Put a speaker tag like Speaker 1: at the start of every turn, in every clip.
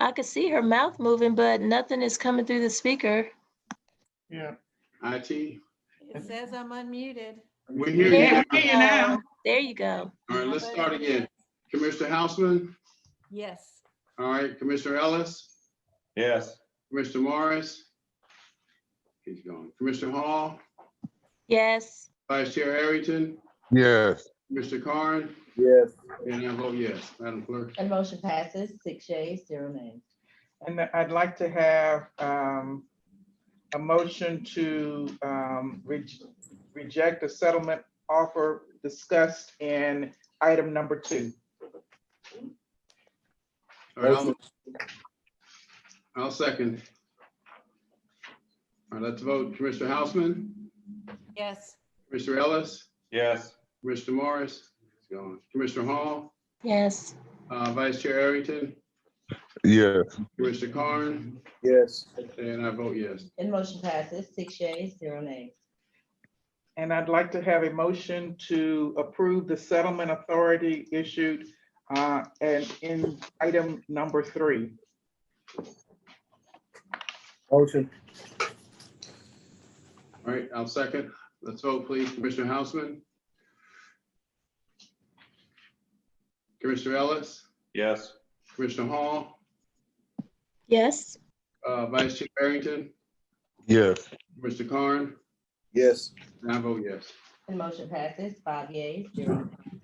Speaker 1: I could see her mouth moving, but nothing is coming through the speaker.
Speaker 2: Yeah.
Speaker 3: IT,
Speaker 4: It says I'm unmuted.
Speaker 3: we hear
Speaker 1: Yeah.
Speaker 3: you.
Speaker 2: Hey, you now.
Speaker 1: Um, There you go.
Speaker 3: All right, let's start again. Commissioner Hausman,
Speaker 4: Yes.
Speaker 3: all right, Commissioner Ellis,
Speaker 5: Yes.
Speaker 3: Commissioner Morris. He's gone. Commissioner Hall,
Speaker 1: Yes,
Speaker 3: Vice Chair Arrington,
Speaker 6: Yes,
Speaker 3: Mr. Carn,
Speaker 7: Yes.
Speaker 3: and I vote yes. Madam Clerk.
Speaker 8: And motion passes six yeas, zero nays.
Speaker 2: And I'd like to have um, a motion to um, re- reject the settlement offer discussed in item number two.
Speaker 3: All right, I'll- I'll second. All right, let's vote. Commissioner Hausman,
Speaker 4: Yes.
Speaker 3: Commissioner Ellis,
Speaker 5: Yes.
Speaker 3: Commissioner Morris, he's gone. Commissioner Hall,
Speaker 1: yes,
Speaker 3: uh, Vice Chair Arrington,
Speaker 6: yes,
Speaker 3: Commissioner Carn,
Speaker 7: Yes.
Speaker 3: and I vote yes.
Speaker 8: And motion passes six yeas, zero nays.
Speaker 2: And I'd like to have a motion to approve the settlement authority issued uh, and in item number three.
Speaker 7: Motion.
Speaker 3: All right, I'll second. Let's vote, please. Commissioner Hausman. Commissioner Ellis,
Speaker 5: Yes.
Speaker 3: Commissioner Hall,
Speaker 1: yes,
Speaker 3: uh, Vice Chair Arrington,
Speaker 6: yes,
Speaker 3: Mr. Carn,
Speaker 7: Yes.
Speaker 3: and I vote yes.
Speaker 8: And motion passes five yeas, zero nays.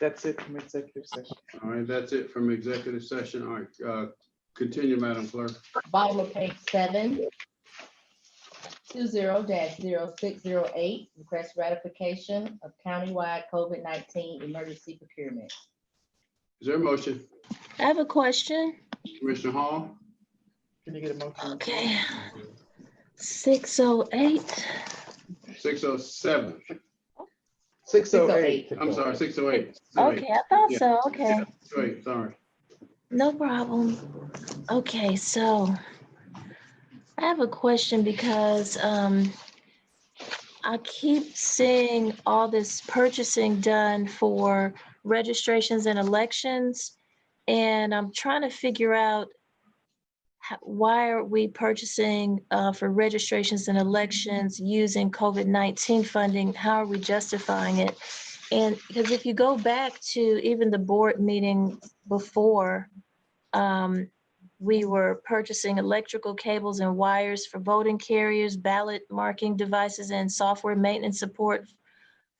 Speaker 2: That's it from executive session.
Speaker 3: All right, that's it from executive session. All right, uh, continue, Madam Clerk.
Speaker 8: Bottom of page seven. Two zero dash zero six zero eight, request ratification of countywide COVID nineteen emergency procurement.
Speaker 3: Is there a motion?
Speaker 1: I have a question.
Speaker 3: Commissioner Hall,
Speaker 2: Can you get a motion?
Speaker 1: Okay. Six oh eight.
Speaker 3: six oh seven.
Speaker 2: Six oh eight.
Speaker 3: I'm sorry, six oh eight.
Speaker 1: Okay, I thought
Speaker 3: Yeah.
Speaker 1: so. Okay.
Speaker 3: Wait, sorry.
Speaker 1: No problem. Okay, so I have a question because um I keep seeing all this purchasing done for registrations and elections. And I'm trying to figure out ho- why are we purchasing uh, for registrations and elections using COVID-19 funding? How are we justifying it? And because if you go back to even the board meeting before, um, we were purchasing electrical cables and wires for voting carriers, ballot marking devices, and software maintenance support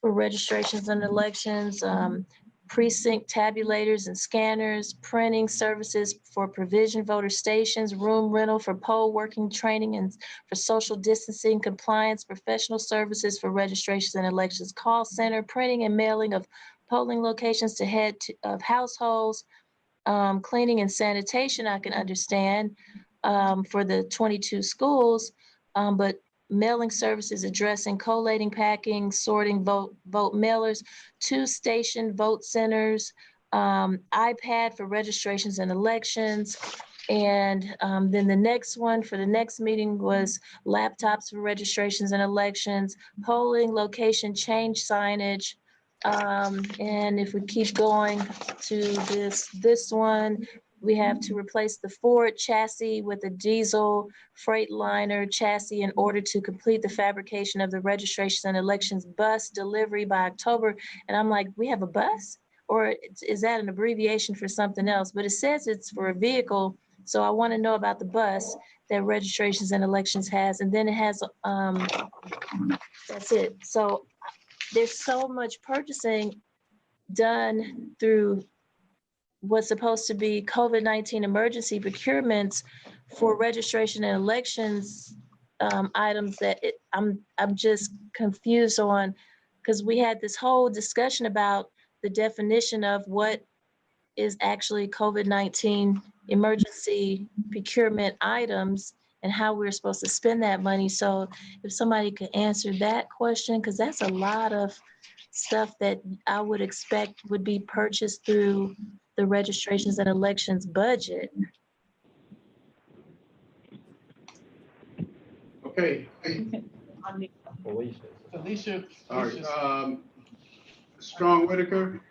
Speaker 1: for registrations and elections, um, precinct tabulators and scanners, printing services for provision voter stations, room rental for poll working training and for social distancing compliance, professional services for registrations and elections, call center, printing and mailing of polling locations to head to- of households, um, cleaning and sanitation, I can understand, um, for the twenty-two schools. Um, but mailing services addressing collating, packing, sorting vote, vote mailers, two station vote centers, um, iPad for registrations and elections. And, um, then the next one for the next meeting was laptops for registrations and elections, polling location change signage. Um, and if we keep going, to this, this one. We have to replace the Ford chassis with a diesel Freightliner chassis in order to complete the fabrication of the registration and elections bus delivery by October. And I'm like, we have a bus? Or it's- is that an abbreviation for something else? But it says it's for a vehicle, so I want to know about the bus that registrations and elections has. And then it has, um, that's it. So there's so much purchasing done through was supposed to be COVID-19 emergency procurements for registration and elections um, items that it- I'm, I'm just confused on, because we had this whole discussion about the definition of what is actually COVID-19 emergency procurement items and how we're supposed to spend that money. So if somebody could answer that question, because that's a lot of stuff that I would expect would be purchased through the registrations and elections budget.
Speaker 3: Okay,
Speaker 2: Alicia.
Speaker 3: all right, um, Strong Whitaker,